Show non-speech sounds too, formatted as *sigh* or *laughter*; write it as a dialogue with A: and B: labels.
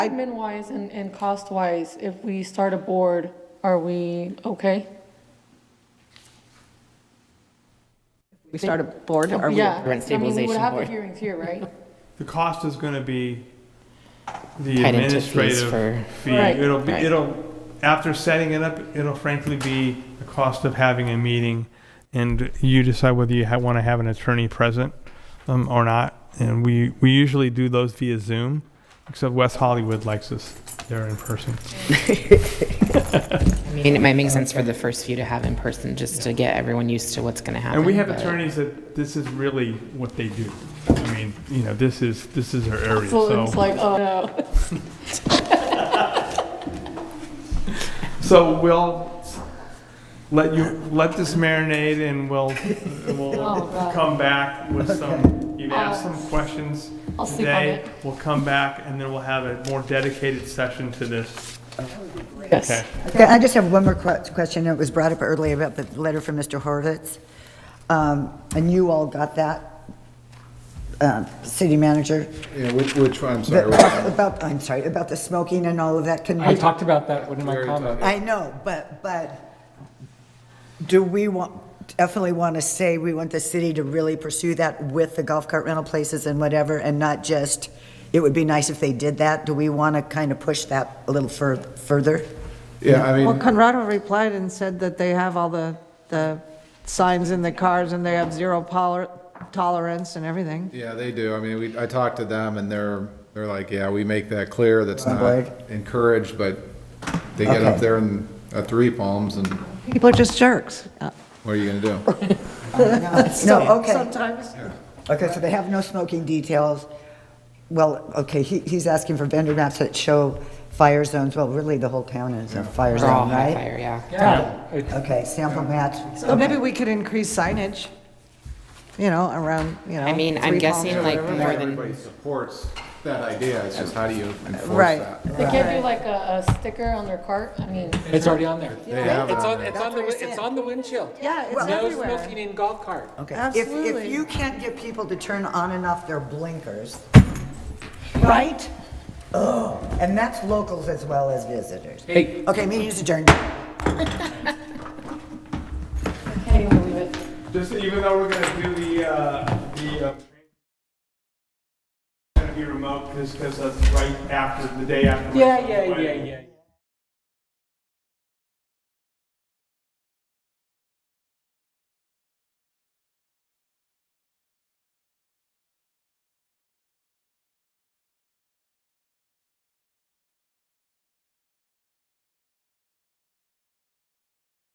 A: Admin-wise and, and cost-wise, if we start a board, are we okay?
B: We start a board or we
A: Yeah,
B: run
A: I mean, we would
B: stabilization
A: have the
B: board?
A: hearings here, right?
C: The cost is gonna be the
B: Tied into fees
C: administrative
B: for-
C: fee.
A: Right.
C: It'll be,
B: Right.
C: it'll, after setting it up, it'll frankly be the cost of having a meeting. And you decide whether you ha wanna have an attorney present, um, or not. And we, we usually do those via Zoom, except West Hollywood likes us there in person.
B: I mean, it might make sense for the first few to have in person, just to get everyone used to what's going to happen.
C: And we have
B: but-
C: attorneys that, this is really what they do. I mean, you know, this is, this is our area,
A: So it's
C: so.
A: like, oh, no.
C: So we'll let you, let this marinate and we'll,
A: Oh,
C: we'll
A: God.
C: come back with some, you've asked some questions
A: I'll sleep on
C: today.
A: it.
C: We'll come back and then we'll have a more dedicated session to this.
A: Yes.
C: Okay.
D: Okay, I just have one more que- question. It was brought up earlier about the letter from Mr. Horvitz. Um, And you all got that, um, city manager?
E: Yeah, which, which, I'm sorry. which
D: That- *laughs*
E: one?
D: About, I'm sorry, about the smoking and all of that. Can
F: I
D: we?
F: talked about that in my
E: Very
F: comment.
E: tough.
D: I know, but, but do we want, definitely want to say we want the city to really pursue that with the golf cart rental places and whatever, and not just, it would be nice if they did that? Do we want to kind of push that a little fur- further?
E: Yeah, I
G: Well,
E: mean,
G: Conrado replied and said that they have all the, the signs in the cars and they have zero poler- tolerance and everything.
E: yeah, they do. I mean, we, I talked to them and they're, they're like, yeah, we make that clear. That's
D: On
E: not
D: board?
E: encouraged, but they get
D: Okay.
E: up there and, uh, three palms and what
G: People are just jerks.
E: are you gonna do?
D: No, okay.
G: Sometimes.
D: Okay, so they have no smoking details. Well, okay, he, he's asking for vendor maps that show fire zones. Well, really, the whole town is a fire
B: We're all
D: zone,
B: on
D: right?
B: fire, yeah.
D: Okay, sample maps.
G: So maybe we could increase signage, you know, around, you know.
B: I mean, I'm
G: three
B: guessing
G: palms.
B: like more than,
E: Everybody supports that idea. It's just how do you enforce
G: Right.
E: that?
A: They can't do like a, a sticker on their cart, I mean,
F: It's already on there.
E: They have it
H: It's
E: on
H: on,
E: there.
H: it's on the, it's on the windshield.
G: Yeah, it's
H: No
G: everywhere.
H: smoking in golf cart.
D: Okay. If,
G: Absolutely.
D: if you can't get people to turn on and off their blinkers,
G: Right?
D: and that's locals as well as visitors.
F: Hey,
D: Okay, meeting is adjourned.
A: can't even believe it.
C: Just even though we're gonna do the, uh, the, uh, gonna be remote because, because that's right after, the day after.
H: Yeah, yeah, yeah, yeah.